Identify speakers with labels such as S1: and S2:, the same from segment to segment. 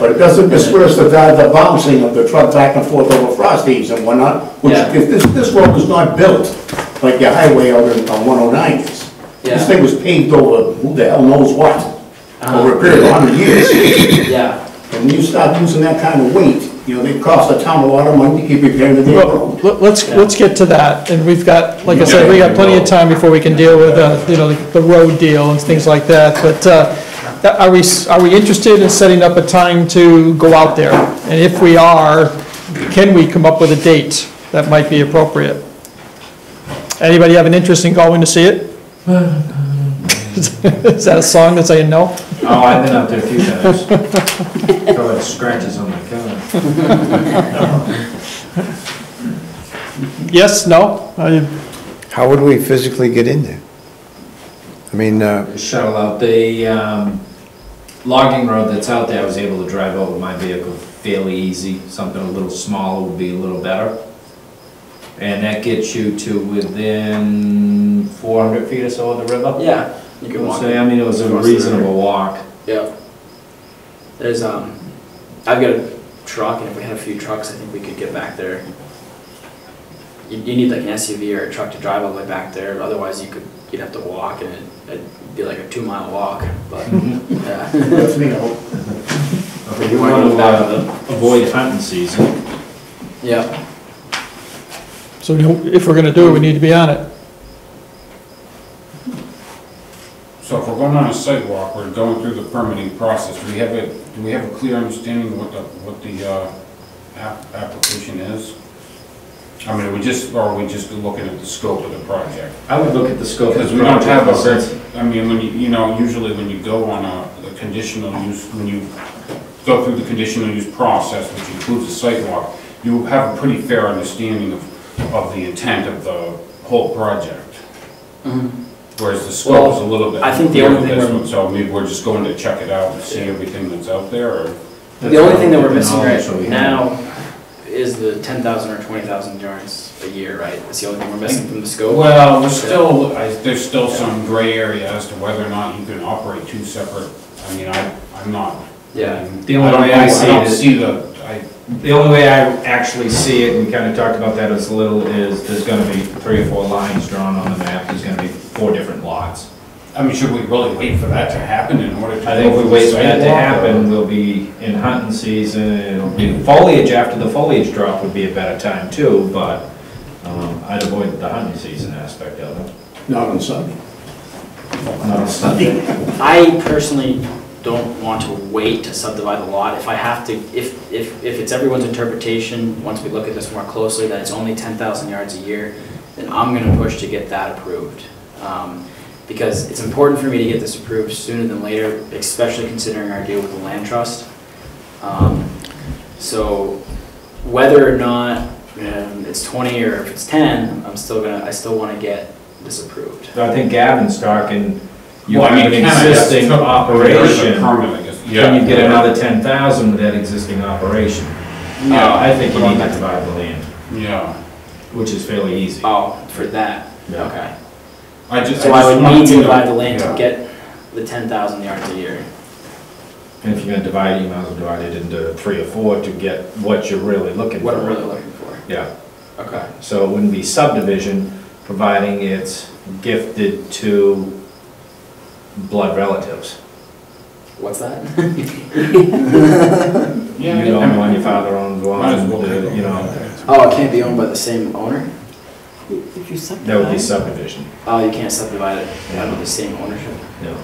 S1: But it doesn't disperse the, the bouncing of the truck back and forth over frost heaves and whatnot, which,
S2: Yeah.
S1: if this, this road was not built like your highway out in, on one oh nine is.
S2: Yeah.
S1: This thing was paved over who the hell knows what,
S2: Uh-huh.
S1: over a period of hundred years.
S2: Yeah,
S1: And when you start using that kind of weight, you know, they cost the town a lot of money to keep repairing the damn
S3: Well,
S1: road.
S3: let- let's, let's get to that, and we've got, like I said, we got plenty of time before we can deal with, uh, you know, the road deal and things like that, but uh, that- are we, s- are we interested in setting up a time to go out there? And if we are, can we come up with a date that might be appropriate? Anybody have an interest in going to see it? Is that a song that's saying no?
S4: Oh, I've been up there a few times. Probably scratches on my car.
S3: Yes, no? I-
S5: How would we physically get in there? I mean, uh,
S4: Shuttle out, the um, logging road that's out there, I was able to drive over my vehicle fairly easy. Something a little smaller would be a little better. And that gets you to within 400 feet or so of the river.
S2: yeah, you can walk.
S4: So, I mean, it was a
S2: Across the river.
S4: reasonable walk.
S2: Yeah. There's, um, I've got a truck, and if we had a few trucks, I think we could get back there. You, you need like an SUV or a truck to drive all the way back there, otherwise you could, you'd have to walk, and it'd- it'd be like a two-mile walk, but, yeah.
S1: That's me, I hope.
S4: You want to uh, avoid hunting season.
S2: Yeah,
S3: So if we're going to do it, we need to be on it.
S6: So if we're going on a sidewalk, we're going through the permitting process, do we have a, do we have a clear understanding of what the, what the, uh, app, application is? I mean, are we just, or are we just looking at the scope of the project?
S4: I would look at the scope of
S6: Because
S4: the
S6: we don't have a,
S4: project.
S6: very- I mean, when you, you know, usually when you go on a, a conditional use, when you go through the conditional use process, which includes a sidewalk, you have a pretty fair understanding of, of the intent of the whole project. Whereas the scope is a little
S2: Mm-hmm.
S6: bit.
S2: Well, I think the only
S6: bigger
S2: thing
S6: than this
S2: we're-
S6: one, So maybe we're just going to check it out and see everything that's out there, or?
S2: the only thing that we're
S4: That's
S2: missing
S4: all the
S2: right
S4: knowledge that we have.
S2: now is the ten thousand or twenty thousand yards a year, right? That's the only thing we're missing from the scope.
S6: Well, there's still, I- there's still some gray area as to whether or not you can operate two separate, I mean, I, I'm not.
S2: Yeah.
S6: The
S4: The
S6: only
S4: only way I see
S6: I don't
S4: it-
S6: see the, I,
S4: The only way I actually see it, and we kind of talked about that as a little, is there's gonna be three or four lines drawn on the map, there's gonna be four different lots.
S6: I mean, should we really wait for that to happen in order to?
S4: I think if we wait for that to
S6: sidewalk, or-
S4: happen, we'll be in hunting season, it'll be foliage, after the foliage drop would be a better time too, but um, I'd avoid the hunting season aspect of it.
S1: Not on Sunday.
S4: Not a Sunday.
S2: I personally don't want to wait to subdivide the lot. If I have to, if, if, if it's everyone's interpretation, once we look at this more closely, that it's only 10,000 yards a year, then I'm going to push to get that approved. Um, Because it's important for me to get this approved sooner than later, especially considering our deal with the land trust. Um, So whether or not um, it's 20 or if it's 10, I'm still gonna, I still want to get this approved.
S4: So I think Gavin's talking, you
S6: Well, I
S4: have
S6: mean,
S4: an
S6: can I- yeah,
S4: existing
S6: so- There is
S4: operation,
S6: a permit, I guess, yeah.
S4: can you get another ten thousand with that existing operation?
S6: Yeah.
S4: Uh, I think you need to divide the land.
S6: Yeah,
S4: which is fairly easy.
S2: Oh, for that?
S4: Yeah.
S2: Okay.
S6: I just.
S2: So I would
S6: just
S2: need to
S6: want
S2: divide the land to
S6: yeah.
S2: get the ten thousand yards a year.
S4: And if you're gonna divide it, you might as well divide it into three or four to get what you're really looking for.
S2: What I'm really looking for.
S4: Yeah,
S2: Okay.
S4: so it wouldn't be subdivision, providing it's gifted to blood relatives.
S2: What's that?
S4: You
S6: Yeah,
S4: own
S6: yeah.
S4: one, your father owns
S6: Might as
S4: one,
S6: well.
S4: the- you know,
S2: Oh, it can't be owned by the same owner?
S7: If you subdivide.
S4: that would be subdivision,
S2: Oh, you can't subdivide it under the same ownership?
S4: you know.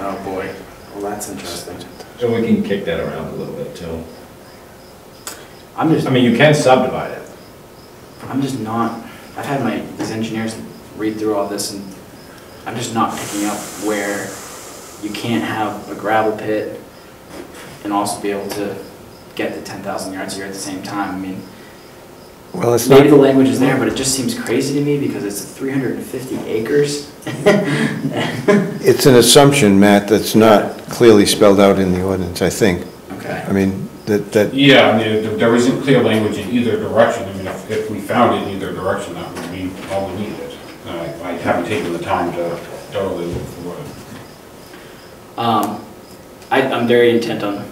S2: Oh, boy. Well, that's interesting.
S4: So we can kick that around a little bit too.
S2: I'm just,
S4: I mean, you can subdivide it.
S2: I'm just not, I've had my, these engineers read through all this and I'm just not picking up where you can't have a gravel pit and also be able to get the ten thousand yards a year at the same time. I mean,
S5: well, it's
S2: Maybe the
S5: not,
S2: language is there, but it just seems crazy to me because it's 350 acres.
S5: it's an assumption, Matt, that's not clearly spelled out in the ordinance, I think.
S2: Okay.
S5: I mean, that, that,
S6: Yeah, I mean, there- there isn't clear language in either direction. I mean, if, if we found it in either direction, that would be all we needed. And I, I haven't taken the time to totally look for it.
S2: Um, I, I'm very intent on